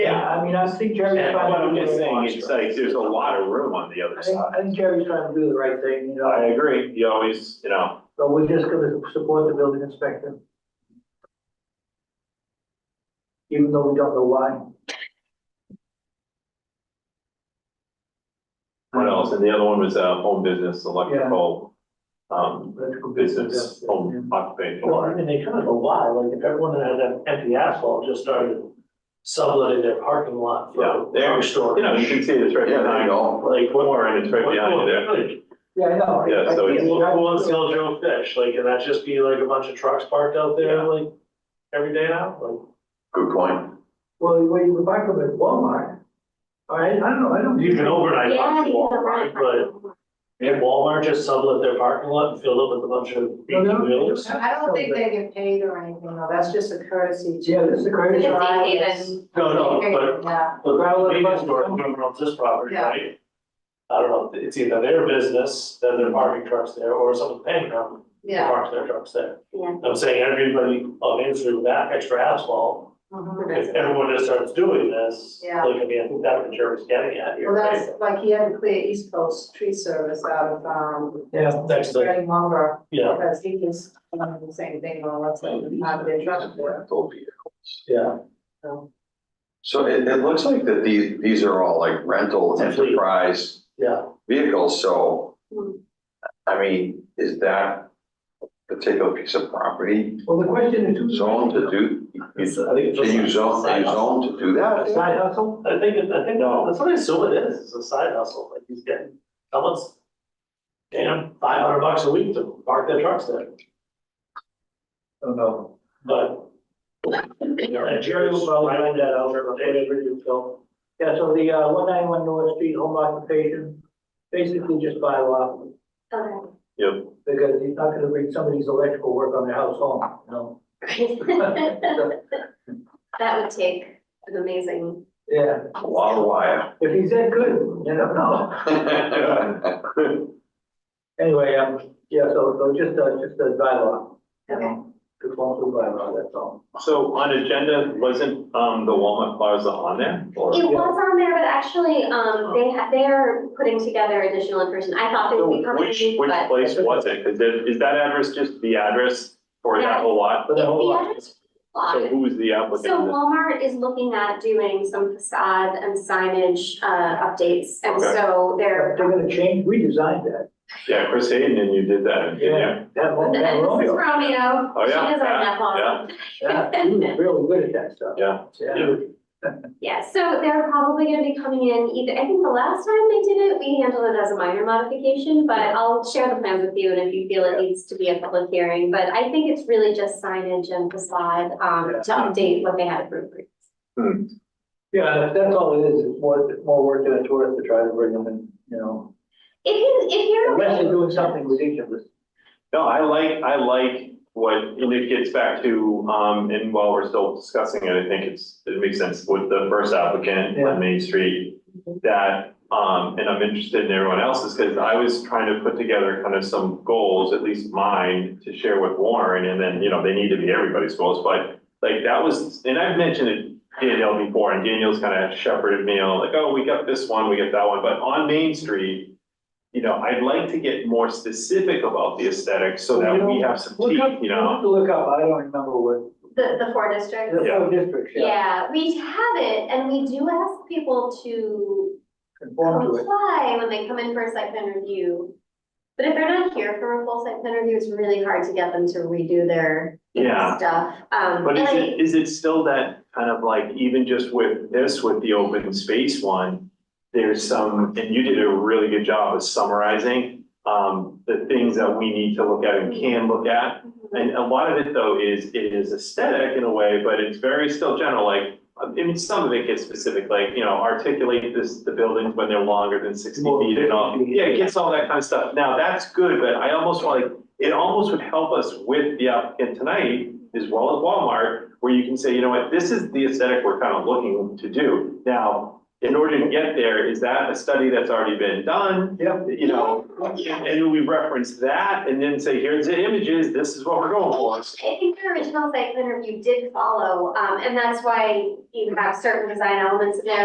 mean, I see Jerry's And what trying I'm to do just the saying, right it's like, there's a lot of room on the other I think, side. I think Jerry's trying to do the right thing, you I know, agree, you always, you know, but we're just gonna support the building inspector. Even though we don't know why. what else? And the other one was, uh, home business, electrical, um, Electrical business, business, yeah. home occupation. Well, I mean, they kind of go lie, like if everyone that had an empty asphalt just started subletting their parking lot Yeah, for there- car You know, storage. you can see it's right Yeah, there you behind, go. Like what? more, and it's right what- behind you what- there. Yeah, I know. I- Yeah, I so think it's- Who we have- wants to sell Joe Fish? Like, can that just be like a bunch of trucks parked out there Yeah. like every day now? Like, Good point. Well, when you buy from at Walmart, I, I don't know, I don't. you can overnight Yeah, park you at can Walmart, rent. but did Walmart just sublet their parking lot and filled up with a bunch of No, no, eighteen wheelers? no. I don't think they get paid or anything, though, that's just a courtesy. to- Yeah, this is the crazy. It's Right, even- yes. No, no, Yeah, but Right, well, the but- convenience store owner owns this property, Yeah. right? I don't know, it's either their business, then they're parking trucks there, or someone's paying them yeah. park their trucks there. Yeah. I'm saying everybody on Main Street with that extra asphalt, mhm. if everyone just starts doing this, Yeah. like, I mean, I think that's what Jerry's getting at here, Well, right? that's, like, he had to clear East Coast Tree Service out of, um, Yeah, Next thing, Reading lumber, yeah, because he was, um, the same thing, on what's in, out of their truck for. Rental vehicles. yeah, So it, it looks like that these, these are all like rental It's a fleet. enterprise yeah. vehicles, so. Hmm. I mean, is that particular piece of property well, the question is. who's- zoned to do? you- I think it's Can you just zone, are side you hustle. zoned to do that? Side hustle? I think, it- I think, No. that's what I assume it is, it's a side hustle, like he's getting, someone's paying him five hundred bucks a week to park their trucks there, I don't know. but. And Jerry Jerry's will probably right find that out, there, or but they- whatever you feel. Yeah, so the, uh, one ninety-one North Street home occupation, basically just by law, because he's not gonna bring somebody's electrical work on their house home, you know? Okay. That would take an amazing, Yeah, A lot of wire. if he's that good, I don't know. Anyway, um, yeah, so, so just, uh, just a bylaw. you Okay. know, Conform to bylaw, that's all. So on agenda, wasn't, um, the Walmart Plaza on there? Or- it was on there, but actually, um, they ha they are putting together additional information, I thought they So would be coming, Which, which but. place was it? Is it, is that address just the address for that whole lot? But that whole, The lot- address was So blocked. who is the So applicant? Walmart is looking at doing some facade and signage, uh, updates, and Okay. so they're they're. gonna change, we designed that. Yeah, Chris Hayden, and you did that, didn't you? That one, And that this is Romeo, Romeo, Oh, she yeah, designed yeah, that plaza. yeah, he was really good at that stuff. Yeah. Yeah, Yeah, so they're probably gonna be coming in either, I think the last time they did it, we handled it as a minor modification, but I'll share the plans with you and if you feel it needs to be a public hearing, but I think it's really just signage and facade, um, to update what they had approved. previously. yeah, that's- that's all it is, it's more, more work than a tourist to try to bring them in, you know, If you, if you're. unless they're doing something ridiculous. No, I like, I like what, and it gets back to, um, and while we're still discussing it, I think it's, it makes sense with the first applicant Yeah. on Main Street. That, um, and I'm interested in everyone else's, because I was trying to put together kind of some goals, at least mine, to share with Warren, and then, you know, they need to be everybody's goals, but. Like that was, and I've mentioned it Danielle before, and Danielle's kind of shepherded me on like, oh, we got this one, we got that one, but on Main Street. You know, I'd like to get more specific about the aesthetics so that we have some Look up, teeth, you you'll have know? to Look up, I don't remember what, The, the four districts. the four districts, yeah, Yeah, we have it and we do ask people to conform to it. comply when they come in for a site plan review. But if they're not here for a full site plan review, it's really hard to get them to redo their Yeah, stuff. Um, but and is I- it, is it still that kind of like, even just with this, with the open space one? There's some, and you did a really good job of summarizing, um, the things that we need to look at and can look at. And a lot of it though is, it is aesthetic in a way, but it's very still general, like, I mean, some of it gets specific, like, you know, articulate this, the buildings when they're longer than sixty More feet and all. 50 feet. Yeah, it gets all that kind of stuff. Now, that's good, but I almost want, like, it almost would help us with the applicant tonight as well as Walmart, where you can say, you know what, this is the aesthetic we're kind of looking to do. Now, in order to get there, is that a study that's already been done? Yep. You know, and we reference that and then say, here's the images, this is what we're going for. I think the original site plan review did follow, um, and that's why you have certain design elements in there